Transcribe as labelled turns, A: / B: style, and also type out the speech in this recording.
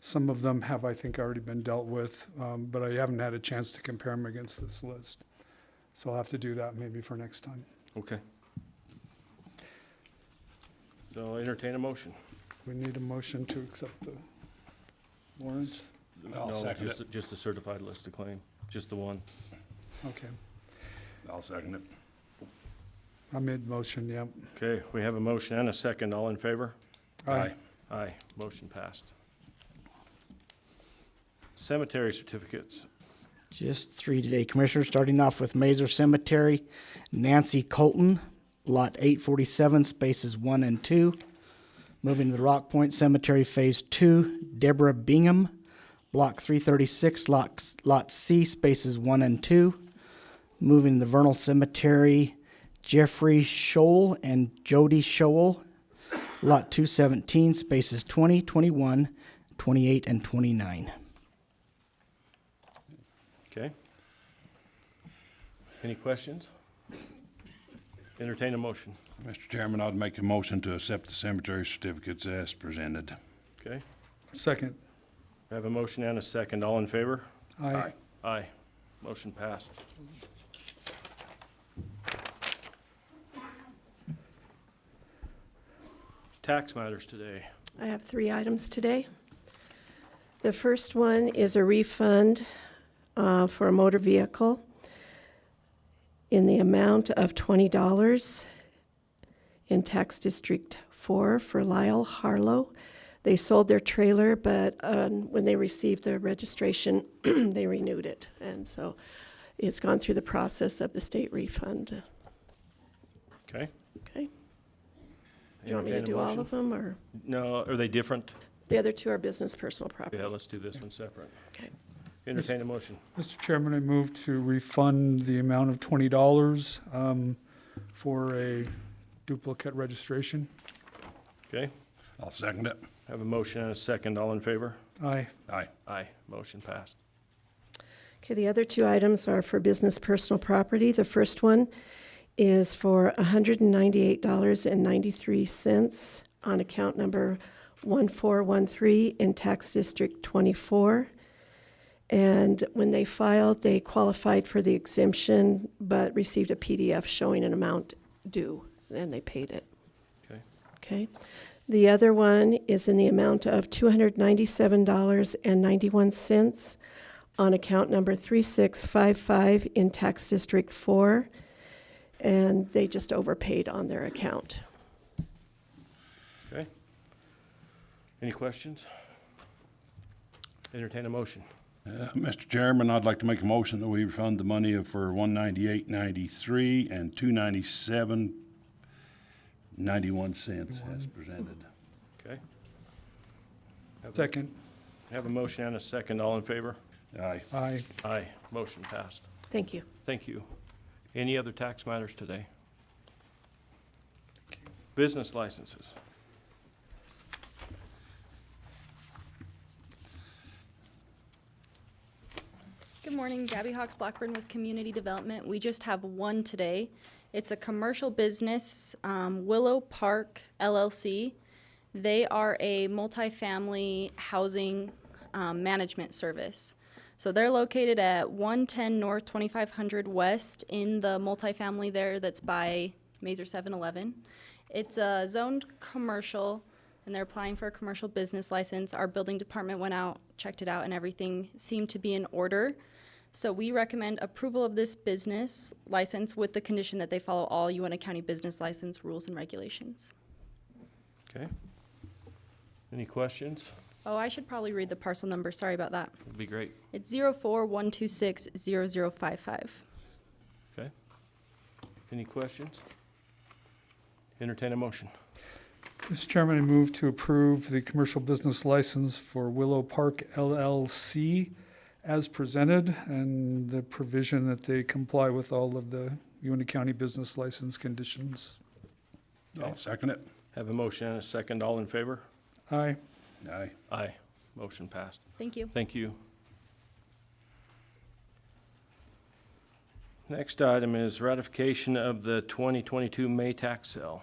A: Some of them have, I think, already been dealt with, um, but I haven't had a chance to compare them against this list. So I'll have to do that maybe for next time.
B: Okay. So entertain a motion.
A: We need a motion to accept the warrants.
C: I'll
B: No,
C: second
B: just- Just the certified list to claim, just the one.
A: Okay,
C: I'll second it.
A: I made motion, yep.
B: Okay, we have a motion and a second. All in favor?
A: Aye.
B: Aye, motion passed. Cemetery certificates.
D: Just three today, Commissioner, starting off with Mazer Cemetery, Nancy Colton, Lot 847, spaces 1 and 2. Moving to the Rock Point Cemetery, Phase 2, Deborah Bingham, Block 336, Lot Lot C, spaces 1 and 2. Moving to the Vernal Cemetery, Jeffrey Scholl and Jody Scholl, Lot 217, spaces 20, 21, 28, and 29.
B: Okay. Any questions? Entertain a motion.
C: Mr. Chairman, I'd make a motion to accept the cemetery certificates as presented.
B: Okay,
A: Second.
B: I have a motion and a second. All in favor? Aye. Motion passed. Tax matters today.
E: I have three items today. The first one is a refund uh, for a motor vehicle in the amount of $20 in Tax District 4 for Lyle Harlow. They sold their trailer, but um, when they received the registration, they renewed it. And so it's gone through the process of the state refund.
B: Okay?
E: Okay? Do you want me
B: Entertain
E: to
B: a
E: do all
B: motion.
E: of them, or?
B: No, are they different?
E: The other two are business personal property.
B: Yeah, let's do this one separate.
E: Okay.
B: Entertain a motion.
A: Mr. Chairman, I move to refund the amount of twenty dollars, um, for a duplicate registration.
B: Okay,
C: I'll second it.
B: have a motion and a second. All in favor?
A: Aye.
C: Aye.
B: Aye. Motion passed.
E: Okay, the other two items are for business personal property. The first one is for $198.93 on account number 1413 in Tax District 24. And when they filed, they qualified for the exemption, but received a PDF showing an amount due, and they paid it.
B: Okay,
E: Okay. The other one is in the amount of $297.91 on account number 3655 in Tax District 4, and they just overpaid on their account.
B: okay. Any questions? Entertain a motion.
C: Uh, Mr. Chairman, I'd like to make a motion that we refund the money of- for one ninety-eight ninety-three and two ninety-seven ninety-one cents as presented.
B: Okay,
A: Second.
B: have a motion and a second. All in favor?
C: Aye.
A: Aye.
B: Aye. Motion passed.
E: Thank you.
B: Thank you. Any other tax matters today? Business licenses.
F: Good morning, Gabby Hawks Blackburn with Community Development. We just have one today. It's a commercial business, um, Willow Park LLC. They are a multifamily housing um, management service. So they're located at 110 North 2500 West in the multifamily there that's by Mazer 7-Eleven. It's a zoned commercial, and they're applying for a commercial business license. Our building department went out, checked it out, and everything seemed to be in order. So we recommend approval of this business license with the condition that they follow all UNA County business license rules and regulations.
B: Okay. Any questions?
F: Oh, I should probably read the parcel number, sorry about that.
B: Would be great.
F: It's zero four one two six zero zero five five.
B: Okay. Any questions? Entertain a motion.
A: Mr. Chairman, I move to approve the commercial business license for Willow Park LLC as presented and the provision that they comply with all of the Uinta County business license conditions.
C: I'll second it.
B: Have a motion and a second. All in favor?
A: Aye.
C: Aye.
B: Aye. Motion passed.
F: Thank you.
B: Thank you. Next item is ratification of the 2022 May tax sale.